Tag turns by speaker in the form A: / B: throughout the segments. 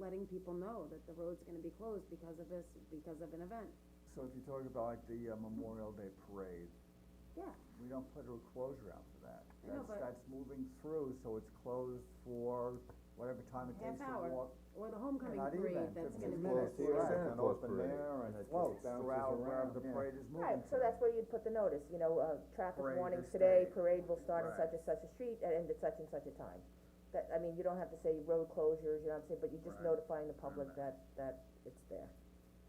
A: letting people know that the road's gonna be closed because of this, because of an event,
B: So if you talk about like the uh, Memorial Day parade,
A: yeah.
B: we don't put a closure out for that.
A: I know,
B: That's,
A: but-
B: that's moving through, so it's closed for whatever time it
A: Half
B: takes to
A: hour.
B: walk.
A: Or the homecoming
B: Not even,
A: parade that's gonna
B: fifteen
A: be.
B: minutes, yeah,
C: Closed for
B: it's
C: Santa
B: an
C: Claus
B: open
C: parade,
B: there and
C: and
B: it
C: it
B: floats
C: bounces
B: throughout wherever
C: around,
B: the
C: yeah.
B: parade is moving.
D: Right, so
B: to.
D: that's where you'd put the notice, you know, uh, traffic
B: Parade
D: warning
B: this
D: today,
B: day.
D: parade will start on
B: Right.
D: such and such a street and end at such and such a time. That, I mean, you don't have to say road closures, you know what I'm saying, but you're just
B: Right.
D: notifying the public that, that it's there.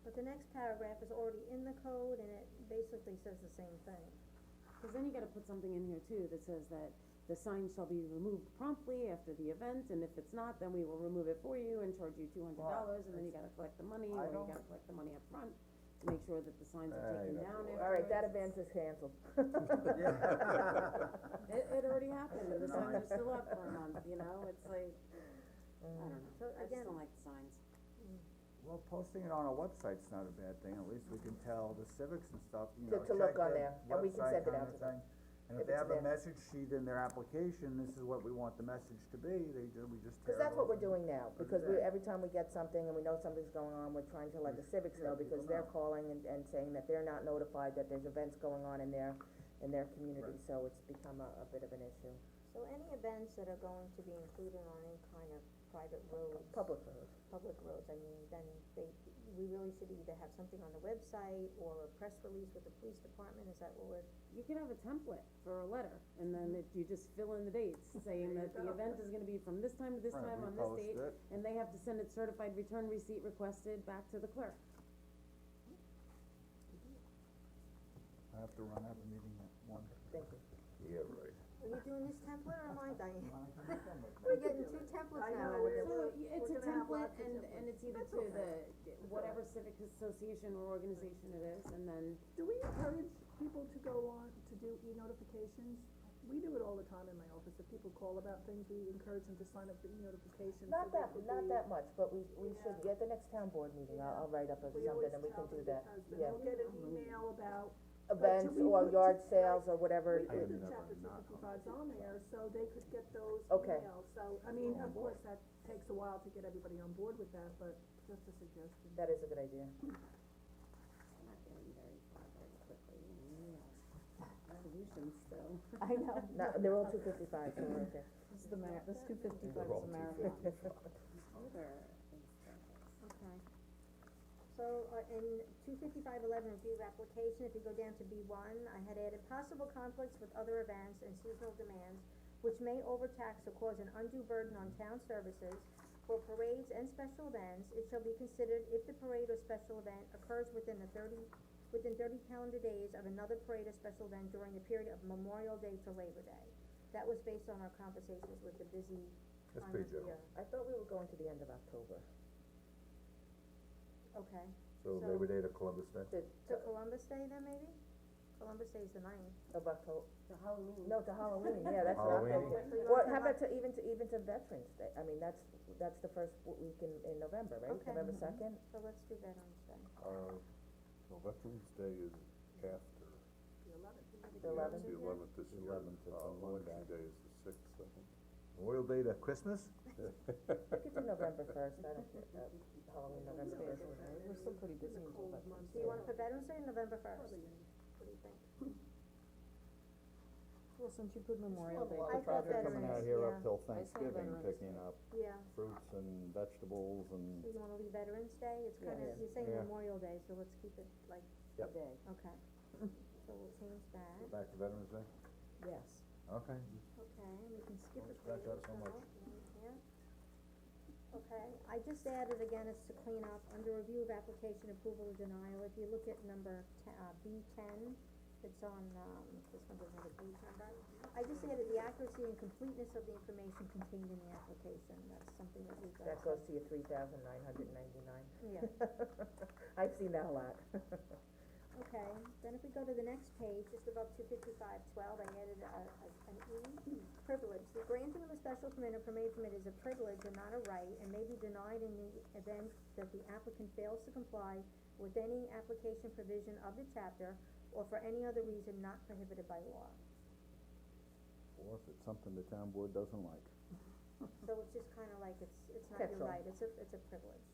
E: But the next paragraph is already in the code and it basically says the same thing.
A: Cause then you gotta put something in here too that says that the sign shall be removed promptly after the event, and if it's not, then we will remove it for you and charge you two hundred dollars, and then you gotta collect the money, or
B: I
A: you
B: don't-
A: gotta collect the money up front to make sure that the signs are
C: Ah,
A: taken
C: you don't
A: down afterwards.
D: Alright, that event is canceled.
A: It, it already happened, and the
B: No, I-
A: signs are still up for a month, you know, it's like, I don't know,
E: So
A: I just
E: again-
A: don't like the signs.
B: Well, posting it on our website's not a bad thing, at least we can tell the civics and stuff, you
D: To-
B: know,
D: to look
B: check
D: on
B: their
D: there, and we can
B: website
D: send it
B: kind
D: out
B: of
D: to them,
B: thing. And if
D: if
B: they
D: it's
B: have a
D: there.
B: message sheet in their application, this is what we want the message to be, they ju- we just tear it
D: Cause that's what
B: off.
D: we're doing now,
B: Put it
D: because we,
B: there.
D: every time we get something and we know something's going on, we're trying to let the civics know,
B: let people
D: because they're
B: know.
D: calling and, and saying that they're not notified that there's events going on in their, in their community,
B: Right.
D: so it's become a, a bit of an issue.
E: So any events that are going to be included on any kind of private roads,
D: Public road.
E: public roads, I mean, then they, we really should either have something on the website or a press release with the police department, is that what we're,
A: You could have a template for a letter, and then it, you just fill in the dates, saying that the event is gonna be from this time to this
B: Right,
A: time
B: we
A: on this
B: post
A: date,
B: it.
A: and they have to send it certified return receipt requested back to the clerk.
B: I have to run, I have a meeting at one.
D: Thank you.
C: Yeah, right.
E: are you doing this template or am I, Diane?
B: We're
E: We're getting two templates
F: I
E: now,
F: know,
E: and
A: So,
F: Yeah, we're-
A: y- it's a
F: we're gonna have
A: template,
F: lots of
A: and, and it's either to the, whatever civic association or organization it is, and then,
F: Do we encourage people to go on, to do e-notifications? We do it all the time in my office, if people call about things, we encourage them to sign up for e-notifications. so
D: Not
F: they
D: that,
F: could
D: not
F: be-
D: that much, but we, we should, at the next town board meeting, I'll, I'll write up a-
F: We always
D: something and we
F: tell
D: can do
F: them
D: that,
F: because
D: yeah.
F: They'll get an email about,
D: Events
F: we
D: or
F: put
D: yard
F: to-
D: sales or
F: we
D: whatever,
F: put
C: would
F: the
C: never
F: chapter two
C: not
F: fifty-fives on there, so they could get those
D: Okay.
F: emails, so, I mean, of course, that takes a while to get everybody on board with that, but just a suggestion.
D: that is a good idea.
A: I'm not getting very far very quickly, you know, we have resolutions still.
D: I know. No, they're all two fifty-five, so we're okay.
G: This is the mar- this two fifty-five
C: They're
G: is a
C: all
G: marathon.
A: Other examples.
E: Okay. So, uh, in two fifty-five eleven, review application, if you go down to B one, I had added possible conflicts with other events and seasonal demands, which may overtax or cause an undue burden on town services. For parades and special events, it shall be considered if the parade or special event occurs within the thirty, within thirty calendar days of another parade or special event during the period of Memorial Day to Labor Day. That was based on our conversations with the busy
C: That's
E: time
C: pretty
E: of
C: general.
E: year.
D: I thought we were going to the end of October,
E: Okay.
C: So
E: So-
C: Labor Day to Columbus Day?
D: to,
E: So Columbus Day then maybe? Columbus Day is the ninth.
D: of October,
A: So Halloween.
D: no, to Halloween, yeah, that's not
C: Halloween.
D: October. Well, how about to, even to, even to Veterans Day, I mean, that's, that's the first w- week in, in November, right?
E: Okay. Mm-hmm.
D: November second,
E: So let's do Veterans Day.
C: Uh, no, Veterans Day is after.
D: the eleventh,
C: The eleventh this year.
B: Eleventh, it's
C: Uh,
B: on Monday.
C: Election Day is the sixth, I think.
B: Memorial Day to Christmas?
D: we could do November first, I don't care, uh, Halloween, November first.
G: We're still pretty busy until Veterans
E: Do you wanna put Veterans Day November first? What do you think?
G: Well, since you put Memorial Day.
E: I thought
B: They're coming out
E: Veterans,
B: here
E: yeah.
B: up
G: I
B: till
G: saw
B: Thanksgiving,
G: Veterans
B: picking
G: Day.
B: up
E: Yeah,
B: fruits and vegetables and,
E: so you wanna leave Veterans Day? It's kinda,
D: Yeah.
E: you're saying
B: Yeah.
E: Memorial Day, so let's keep it like,
B: Yep.
D: Day,
E: okay. So we'll change that,
B: back to Veterans Day?
D: yes,
B: Okay.
E: okay, and we can skip
B: Don't
E: it
B: scratch out so much.
E: Yeah. Okay, I just added again, it's to clean up, under review of application approval or denial, if you look at number te- uh, B ten, it's on, um, this one doesn't have a page number. I just added the accuracy and completeness of the information contained in the application, that's something that we've uh, got.
D: that goes to your three thousand nine hundred ninety-nine.
E: Yeah,
D: I've seen that a lot.
E: okay, then if we go to the next page, just above two fifty-five twelve, I added a, a- an E, privilege. The granting of a special permit or permit permit is a privilege and not a right, and may be denied in the event that the applicant fails to comply with any application provision of the chapter, or for any other reason not prohibited by law.
B: Or if it's something the town board doesn't like.
E: So it's just kinda like, it's, it's not
D: That's
E: your
D: all.
E: right, it's a, it's a privilege.